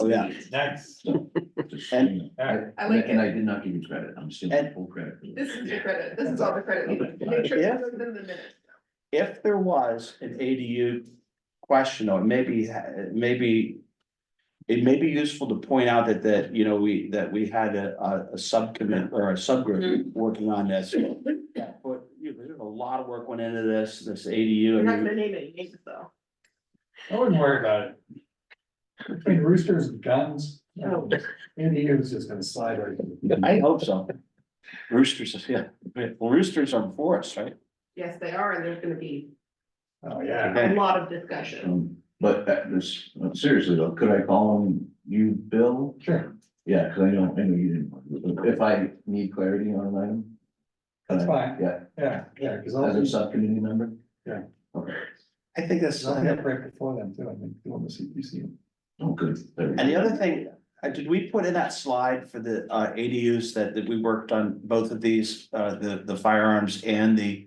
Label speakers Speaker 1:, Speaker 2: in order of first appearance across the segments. Speaker 1: Oh, yeah,
Speaker 2: Next.
Speaker 1: and,
Speaker 2: Alright.
Speaker 3: I like
Speaker 4: And I
Speaker 3: it.
Speaker 4: did not give you credit, I'm stealing
Speaker 1: And-
Speaker 4: full credit. for
Speaker 3: This is your credit. This is all the credit. we need. Make sure
Speaker 1: Yeah.
Speaker 3: it's within the minutes.
Speaker 1: if there was an ADU question, or maybe, maybe. It may be useful to point out that, that, you know, we, that we had a, a, a subcommit or a subgroup
Speaker 3: Mm-hmm.
Speaker 1: working on this. Yeah, But, you know, there's a lot of work went into this, this ADU. I
Speaker 3: We're
Speaker 1: mean,
Speaker 3: not gonna name any names though.
Speaker 2: I wouldn't worry about it. Between roosters and guns.
Speaker 3: No.
Speaker 2: Andy is just gonna slide right. in.
Speaker 1: I hope so. Roosters, yeah, well, roosters are for us, right?
Speaker 3: Yes, they are, and there's gonna be
Speaker 2: Oh, yeah.
Speaker 3: a
Speaker 1: Okay.
Speaker 3: lot of
Speaker 4: that.
Speaker 3: discussion.
Speaker 4: Um, But that was, seriously though, could I call him you, Bill?
Speaker 2: Sure,
Speaker 4: Yeah, cause I don't, I know you didn't, if I need clarity on an item. can
Speaker 2: That's
Speaker 4: I-
Speaker 2: fine.
Speaker 4: Yeah,
Speaker 2: yeah, yeah, because
Speaker 4: as
Speaker 2: I'll,
Speaker 4: a
Speaker 2: be-
Speaker 4: subcommittee member?
Speaker 2: Yeah.
Speaker 4: Okay,
Speaker 1: I think that's.
Speaker 2: I'll be up right before them too, I think, doing the CPC.
Speaker 4: oh, good. There we go.
Speaker 1: And the other thing, uh, did we put in that slide for the uh ADUs that that we worked on both of these, uh the the firearms and the.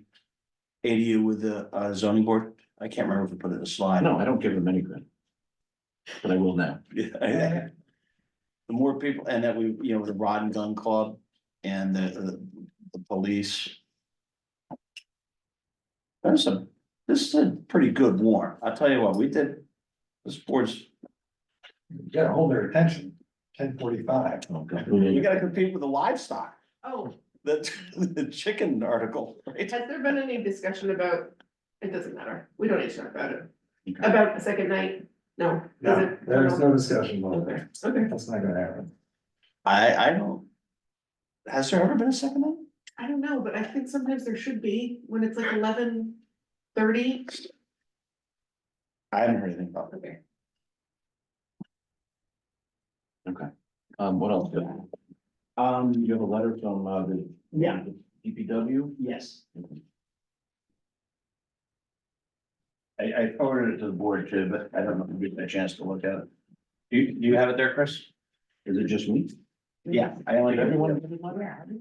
Speaker 1: ADU with the uh zoning board? I can't remember if we put it in the slide.
Speaker 4: No, I don't give him any credit. But I will now.
Speaker 1: Yeah. The more people, and that we, you know, the rod and gun club and the the the police. That's a, this is a pretty good warrant. I'll tell you what, we did. This board's,
Speaker 2: You gotta hold their attention, ten forty-five.
Speaker 4: Oh, God.
Speaker 1: we gotta compete with the livestock.
Speaker 3: Oh,
Speaker 1: The, the chicken article, right?
Speaker 3: has there been any discussion about, it doesn't matter. We don't need to talk about it.
Speaker 4: Okay.
Speaker 3: About the second night? No. does
Speaker 2: No,
Speaker 3: it?
Speaker 2: there's no discussion about
Speaker 3: Okay,
Speaker 2: that.
Speaker 3: okay.
Speaker 2: That's not gonna happen.
Speaker 1: I, I don't. Has there ever been a second one?
Speaker 3: I don't know, but I think sometimes there should be when it's like eleven thirty.
Speaker 1: I haven't heard anything about
Speaker 3: Okay.
Speaker 4: Um, what else? Um, you have a letter from, uh, the.
Speaker 1: Yeah.
Speaker 4: DPW?
Speaker 1: Yes.
Speaker 4: I, I forwarded it to the board too, but I don't know if you had a chance to look at it.
Speaker 1: Do, you- do you have it there, Chris?
Speaker 4: Is it just me?
Speaker 1: Yeah, I only.
Speaker 4: Did everyone-
Speaker 5: Yeah. I think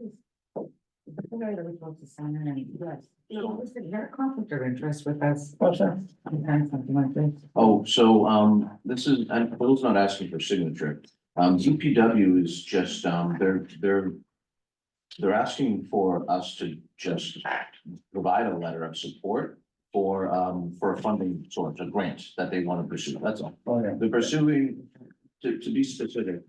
Speaker 5: The guy that was supposed to sign in, and he was, he always said he had a conflict of interest with us,
Speaker 4: Oh, sorry.
Speaker 5: sometimes something like this.
Speaker 4: Oh, so, um, this is, and Bill's not asking for signature. Um, DPW is just, um, they're, they're. They're asking for us to just provide a letter of support for, um, for a funding source, a grant that they want to pursue. That's all.
Speaker 1: Oh, yeah.
Speaker 4: They're pursuing, to, to be specific,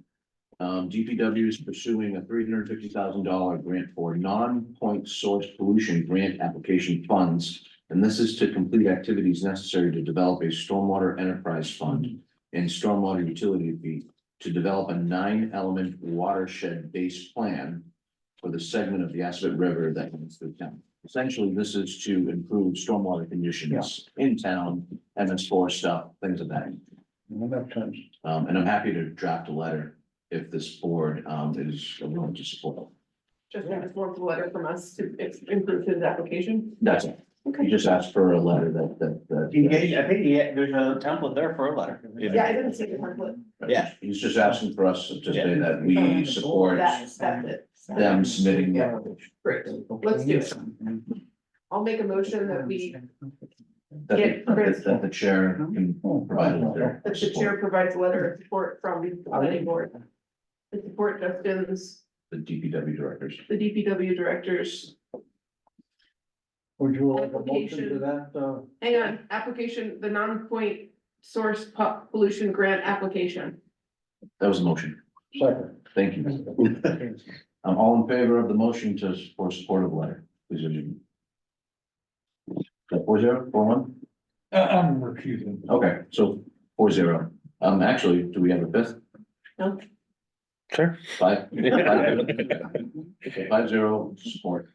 Speaker 4: um, DPW is pursuing a three hundred and fifty thousand dollar grant for non-point source pollution grant application funds. And this is to complete activities necessary to develop a stormwater enterprise fund and stormwater utility fee to develop a nine-element watershed-based plan for the segment of the Aspet River that runs through town. Essentially, this is to improve stormwater conditions in town, MS four stuff, things of that. Um, and I'm happy to draft a letter if this board, um, is willing to support. it.
Speaker 3: Just want to form the letter from us to ex- improve his application.
Speaker 4: That's it. You
Speaker 3: Okay.
Speaker 4: just asked for a letter that, that,
Speaker 1: He
Speaker 4: that.
Speaker 1: gave- I think he, had- there's a template there for a letter.
Speaker 3: Yeah, I didn't see the template.
Speaker 1: Yeah.
Speaker 4: He's just asking for us to say that we support
Speaker 3: That's, that's it.
Speaker 4: them submitting the application.
Speaker 3: Great. Let's do it. I'll make a motion that we,
Speaker 4: That,
Speaker 3: Yeah,
Speaker 4: the-
Speaker 3: Chris.
Speaker 4: that the chair can provide a letter.
Speaker 3: that Oh. the chair provides a letter of support from the planning board. To support Justin's,
Speaker 4: The DPW directors.
Speaker 3: the DPW directors.
Speaker 6: Would you like a motion to
Speaker 3: Application.
Speaker 6: that, uh,
Speaker 3: Hang on, application, the non-point source po- pollution grant application.
Speaker 4: That was the motion.
Speaker 6: second?
Speaker 4: Thank you. I'm all in favor of the motion to, for support of the letter. Please, would you? That four zero, four one?
Speaker 2: Uh, I'm recusing.
Speaker 4: Okay, so four zero. Um, actually, do we have a fifth?
Speaker 3: No.
Speaker 1: Sure.
Speaker 4: Five. Five zero support.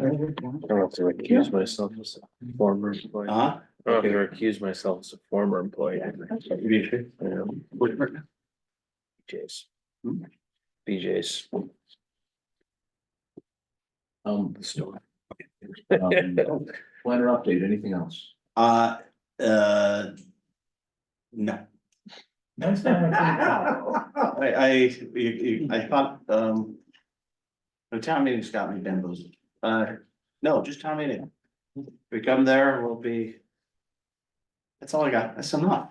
Speaker 7: I don't have to recuse myself as a former employee. I
Speaker 1: Huh?
Speaker 7: don't have to recuse myself as a former employee. Um, Yeah. BJ's. BJ's.
Speaker 4: Um,
Speaker 7: the store.
Speaker 4: um, planner update, anything else?
Speaker 1: Uh, uh. No,
Speaker 2: Next time I
Speaker 3: Oh.
Speaker 1: I, I, you- you- I thought, um. The town meeting's got me bamboozled. Uh, no, just town meeting. We come there, we'll be. That's all I got. That's enough.